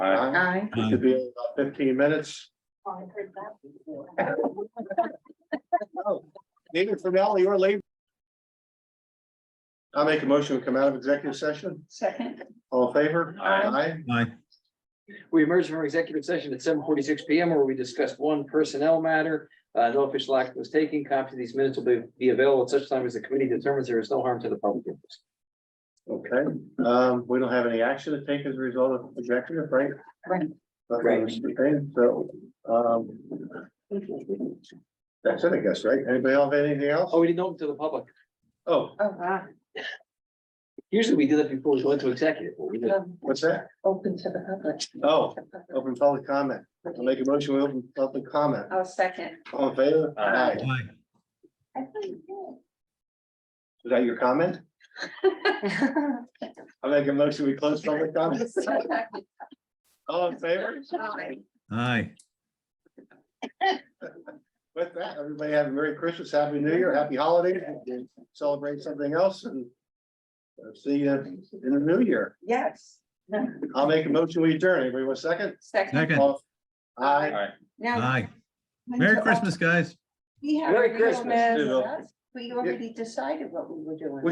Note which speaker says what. Speaker 1: Aye.
Speaker 2: Aye.
Speaker 1: Should be about fifteen minutes.
Speaker 3: Oh, I've heard that before.
Speaker 1: Neither formality or labor. I'll make a motion to come out of executive session.
Speaker 2: Second.
Speaker 1: All in favor?
Speaker 2: Aye.
Speaker 4: Aye.
Speaker 5: We emerged from executive session at seven forty-six P M where we discussed one personnel matter. Uh, no official action was taken. Copies of these minutes will be, be available at such time as the committee determines there is no harm to the public. interest.
Speaker 1: Okay, um, we don't have any action to take as a result of executive, right?
Speaker 2: Right.
Speaker 1: Okay, okay, so, um. That's it, I guess, right? Anybody else have anything else?
Speaker 5: Oh, we didn't open to the public.
Speaker 1: Oh,
Speaker 2: Oh, ah,
Speaker 5: Usually we do that before we go into executive. but we didn't.
Speaker 2: um,
Speaker 1: what's that?
Speaker 2: Open to the public.
Speaker 1: Oh, open public comment. I'll make a motion, we open public comment.
Speaker 2: I'll second.
Speaker 1: All in favor?
Speaker 5: Aye.
Speaker 4: Aye.
Speaker 2: I thought you
Speaker 1: Is that your comment? I make a motion, we close public comments.
Speaker 2: did.
Speaker 1: All in favor?
Speaker 2: Aye.
Speaker 4: Aye.
Speaker 1: With that, everybody have a Merry Christmas, Happy New Year, Happy Holidays, and celebrate something else and uh, see you in the new year.
Speaker 2: Yes.
Speaker 1: I'll make a motion, we adjourn. Everybody want a second?
Speaker 2: Second.
Speaker 4: Second.
Speaker 1: All- Aye.
Speaker 2: Now.
Speaker 4: Aye. Merry Christmas, guys.
Speaker 2: We have.
Speaker 5: Merry
Speaker 2: a real-
Speaker 5: Christmas.
Speaker 1: Too.
Speaker 2: We already decided what we were doing.